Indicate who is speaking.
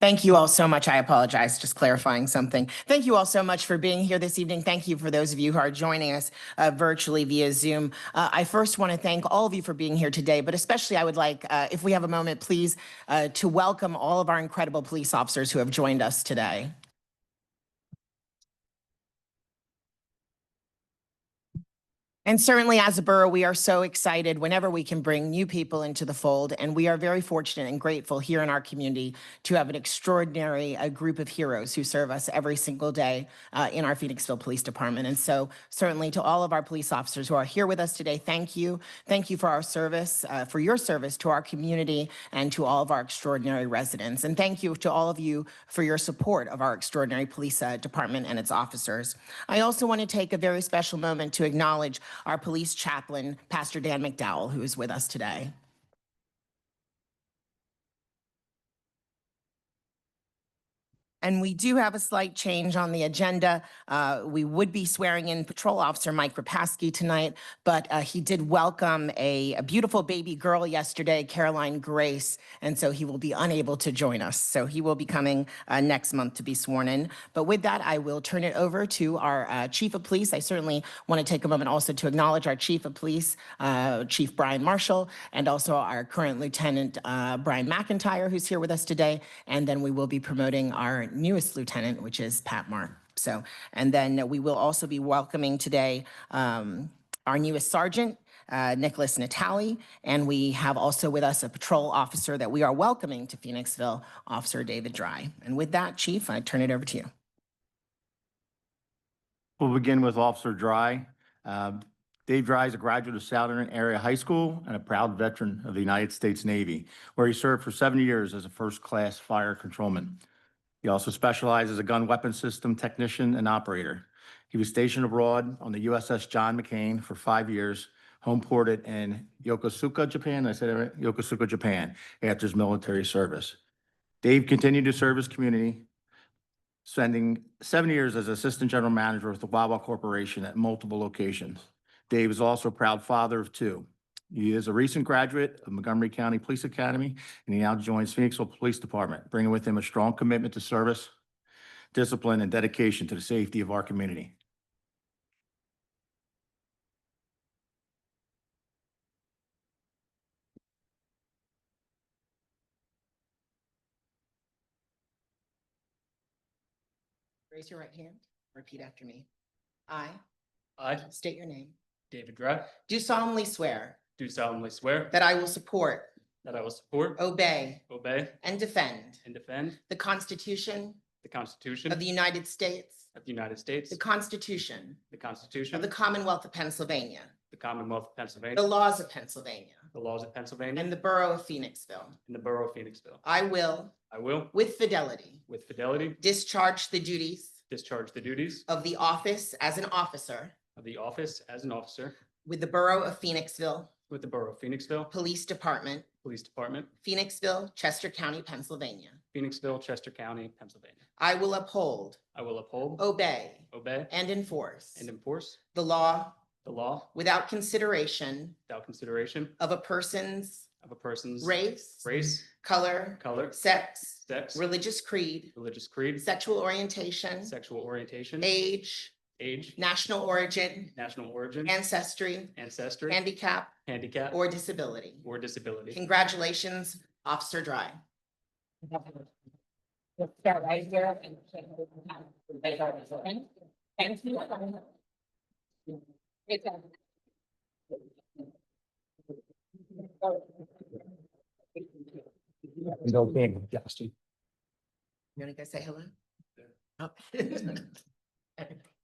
Speaker 1: Thank you all so much. I apologize, just clarifying something. Thank you all so much for being here this evening. Thank you for those of you who are joining us uh, virtually via Zoom. Uh, I first want to thank all of you for being here today, but especially I would like, uh, if we have a moment, please, uh, to welcome all of our incredible police officers who have joined us today. And certainly as a borough, we are so excited whenever we can bring new people into the fold. And we are very fortunate and grateful here in our community to have an extraordinary uh, group of heroes who serve us every single day uh, in our Phoenixville Police Department. And so certainly to all of our police officers who are here with us today, thank you. Thank you for our service, uh, for your service to our community and to all of our extraordinary residents. And thank you to all of you for your support of our extraordinary police uh, department and its officers. I also want to take a very special moment to acknowledge our police chaplain, Pastor Dan McDowell, who is with us today. And we do have a slight change on the agenda. Uh, We would be swearing in Patrol Officer Mike Rapaski tonight, but uh, he did welcome a a beautiful baby girl yesterday, Caroline Grace, and so he will be unable to join us. So he will be coming uh, next month to be sworn in. But with that, I will turn it over to our uh, Chief of Police. I certainly want to take a moment also to acknowledge our Chief of Police, uh, Chief Brian Marshall, and also our current Lieutenant uh, Brian McIntyre, who's here with us today. And then we will be promoting our newest lieutenant, which is Pat Marr. So, and then we will also be welcoming today um, our newest sergeant, uh, Nicholas Natali. And we have also with us a patrol officer that we are welcoming to Phoenixville, Officer David Dry. And with that, Chief, I turn it over to you.
Speaker 2: We'll begin with Officer Dry. Uh, Dave Dry is a graduate of Southern Area High School and a proud veteran of the United States Navy, where he served for seven years as a first-class fire controlman. He also specialized as a gun weapon system technician and operator. He was stationed abroad on the USS John McCain for five years, home ported in Yokosuka, Japan. Did I said that right? Yokosuka, Japan, after his military service. Dave continued to serve his community spending seven years as Assistant General Manager with the Wawa Corporation at multiple locations. Dave is also a proud father of two. He is a recent graduate of Montgomery County Police Academy, and he now joins Phoenixville Police Department, bringing with him a strong commitment to service, discipline, and dedication to the safety of our community.
Speaker 1: Raise your right hand. Repeat after me. I
Speaker 3: I,
Speaker 1: state your name.
Speaker 3: David Dry,
Speaker 1: Do solemnly swear
Speaker 3: do solemnly swear
Speaker 1: that Oh. I will support,
Speaker 3: that I will support,
Speaker 1: obey,
Speaker 3: obey,
Speaker 1: and defend
Speaker 3: and defend
Speaker 1: the Constitution
Speaker 3: the Constitution
Speaker 1: of
Speaker 3: of
Speaker 1: the
Speaker 3: the
Speaker 1: United States,
Speaker 3: United States,
Speaker 1: the Constitution
Speaker 3: the
Speaker 1: of
Speaker 3: Constitution
Speaker 1: the
Speaker 3: of
Speaker 1: Commonwealth of Pennsylvania,
Speaker 3: the Commonwealth of Pennsylvania,
Speaker 1: the laws of Pennsylvania,
Speaker 3: the laws of Pennsylvania,
Speaker 1: and the Borough of Phoenixville.
Speaker 3: and the Borough of Phoenixville.
Speaker 1: I will,
Speaker 3: I will,
Speaker 1: with fidelity,
Speaker 3: with fidelity,
Speaker 1: discharge the duties
Speaker 3: discharge the duties
Speaker 1: of the office as an officer
Speaker 3: of the office as an officer
Speaker 1: with the Borough of Phoenixville
Speaker 3: with the Borough of Phoenixville
Speaker 1: Police Department,
Speaker 3: Police Department,
Speaker 1: Phoenixville, Chester County, Pennsylvania.
Speaker 3: Phoenixville, Chester County, Pennsylvania.
Speaker 1: I will uphold,
Speaker 3: I will uphold,
Speaker 1: obey,
Speaker 3: obey,
Speaker 1: and enforce
Speaker 3: and enforce
Speaker 1: the law
Speaker 3: the law
Speaker 1: without consideration
Speaker 3: without consideration
Speaker 1: of a person's
Speaker 3: of a person's
Speaker 1: race,
Speaker 3: race,
Speaker 1: color,
Speaker 3: color,
Speaker 1: sex,
Speaker 3: sex,
Speaker 1: religious creed,
Speaker 3: religious creed,
Speaker 1: sexual orientation,
Speaker 3: sexual orientation,
Speaker 1: age,
Speaker 3: age,
Speaker 1: national origin,
Speaker 3: national origin,
Speaker 1: ancestry,
Speaker 3: ancestry,
Speaker 1: handicap,
Speaker 3: handicap,
Speaker 1: or disability.
Speaker 3: or disability.
Speaker 1: Congratulations, Officer Dry.
Speaker 4: Start right here and. raise our hands open. Thank you. Great job.
Speaker 1: You want to go say hello? Oh.